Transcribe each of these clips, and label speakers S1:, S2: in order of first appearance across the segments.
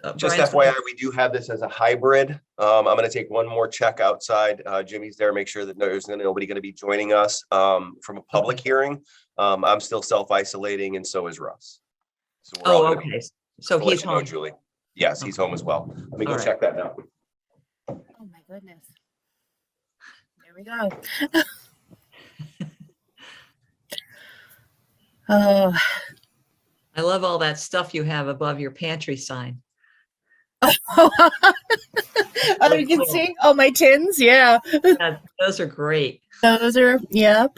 S1: So
S2: Just
S1: uh, Brian's-
S2: FYI, we do have this as a hybrid. Um, I'm gonna take one more check outside. Uh, Jimmy's there, make sure that there's nobody gonna be joining us, um, from a public
S1: Mm-hmm.
S2: hearing. Um, I'm still self-isolating and so is Russ. So we're all
S1: Oh,
S2: gonna be-
S1: okay. So
S2: I'll let
S1: he's
S2: you know,
S1: home.
S2: Julie. Yes, he's home as well. Let me
S1: All
S2: go
S1: right.
S2: check that now.
S3: Oh, my goodness. There we go. Oh,
S1: I love all that stuff you have above your pantry sign.
S3: oh, you can
S1: cool.
S3: see all my tins. Yeah,
S1: Yeah, Those are great.
S3: those are, yep.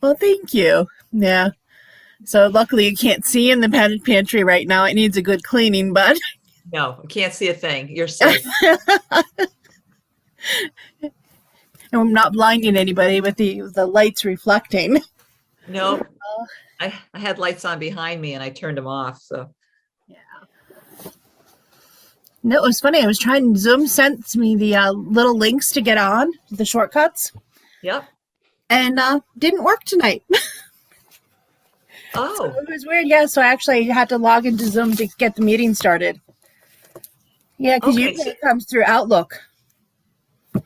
S3: Well, thank you. Yeah. So luckily you can't see in the padded pantry right now. It needs a good cleaning, but
S1: No, I can't see a thing. You're safe.
S3: I'm not blinding anybody with the, the lights reflecting.
S1: No. I, I had lights on behind me and I turned them off, so.
S3: Yeah. No, it was funny. I was trying. Zoom sent me the uh, little links to get on the shortcuts,
S1: Yep.
S3: and uh, didn't work tonight.
S1: Oh,
S3: it was weird. Yeah, so I actually had to log into Zoom to get the meeting started. Yeah, because
S1: Okay,
S3: usually
S1: so-
S3: it comes through Outlook,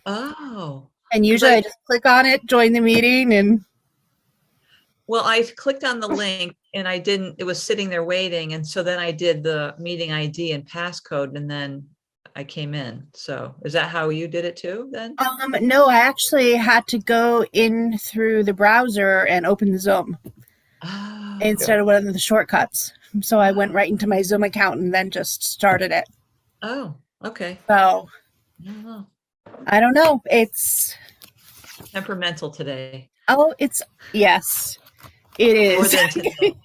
S1: oh.
S3: and usually I
S1: Right.
S3: just click on it, join the meeting, and
S1: Well, I clicked on the link and I didn't, it was sitting there waiting. And so then I did the meeting ID and passcode and then I came in. So is that how you did it too then?
S3: um, no, I actually had to go in through the browser and open the Zoom
S1: Oh,
S3: instead of one of the shortcuts. So I went right into my Zoom account and then just started it.
S1: oh, okay.
S3: So
S1: Oh,
S3: I don't know. It's
S1: Temperamental today.
S3: oh, it's yes, it
S1: More
S3: is.
S1: than today.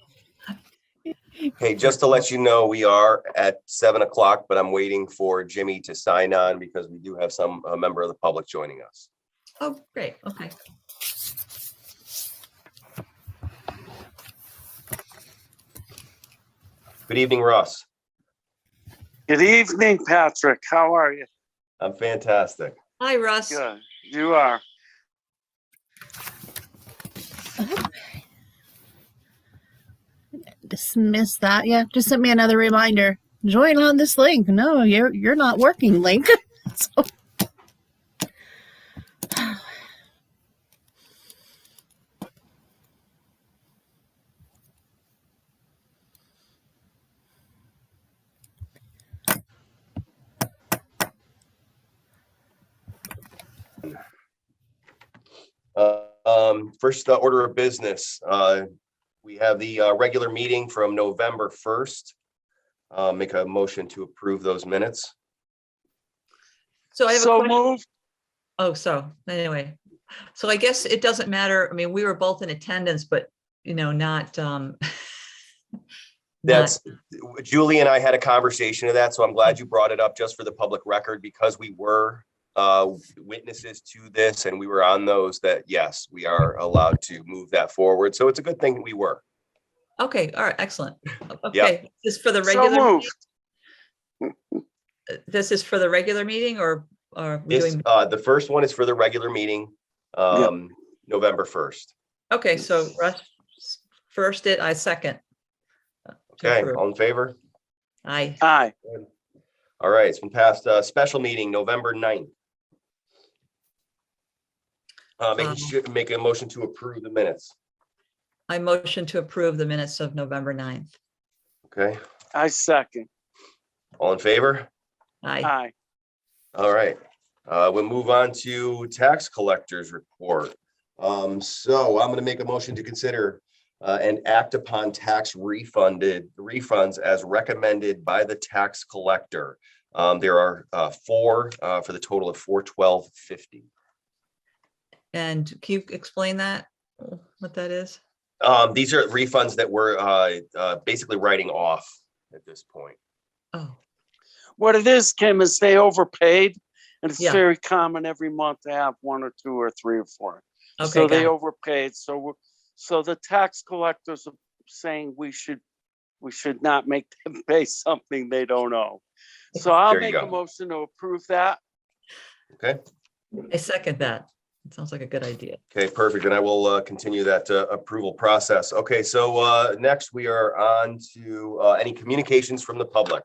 S2: Hey, just to let you know, we are at seven o'clock, but I'm waiting for Jimmy to sign on because we do have some, a member of the public joining us.
S1: Oh, great. Okay.
S2: Good evening, Russ.
S4: Good evening, Patrick. How are you?
S2: I'm fantastic.
S1: Hi, Russ.
S4: Good. You are.
S3: Dismiss that. Yeah, just sent me another reminder. Join on this link. No, you're you're not working, link. so,
S2: Uh, Um, first uh, order of business, uh, we have the uh, regular meeting from November first. Uh, make a motion to approve those minutes.
S1: So I have a
S4: So
S1: question.
S4: moved.
S1: Oh, so anyway, so I guess it doesn't matter. I mean, we were both in attendance, but you know, not, um,
S2: That's, Julie and I had a conversation of that, so I'm glad you brought it up just for the public record because we were uh, witnesses to this and we were on those that, yes, we are allowed to move that forward. So it's a good thing that we were.
S1: Okay, all right, excellent. Okay, this is for the
S4: So
S1: regular,
S4: moved.
S1: this is for the regular meeting or are we
S2: This,
S1: doing?
S2: uh, the first one is for the regular meeting, um, November first.
S1: Okay, so Russ s- first it, I second. Uh,
S2: Okay,
S1: approve.
S2: all in favor?
S1: I,
S4: Aye.
S2: All right, it's been passed, uh, special meeting, November 9th. Uh,
S1: Um,
S2: making, sure- make a motion to approve the minutes,
S1: I motion to approve the minutes of November 9th.
S2: okay?
S4: I second.
S2: All in favor?
S1: I,
S4: Aye.
S2: All right, uh, we'll move on to tax collectors report. Um, so I'm gonna make a motion to consider uh, and act upon tax refunded refunds as recommended by the tax collector. Um, there are uh, four uh, for the total of four twelve fifty.
S1: and can you explain that, what that is?
S2: Um, these are refunds that we're uh, uh, basically writing off at this point.
S1: Oh,
S4: What it is, Kim, is they overpaid. And it's
S1: Yeah.
S4: very common every month to have one or two or three or four.
S1: okay,
S4: So
S1: got
S4: they
S1: it.
S4: overpaid. So, we're- so the tax collectors are saying we should, we should not make them pay something they don't owe. So I'll
S2: There you
S4: make a
S2: go.
S4: motion to approve that.
S1: I second that. It Sounds like a good idea.
S2: Okay, perfect. And I will uh, continue that uh, approval process. Okay, so uh, next we are on to uh, any communications from the public.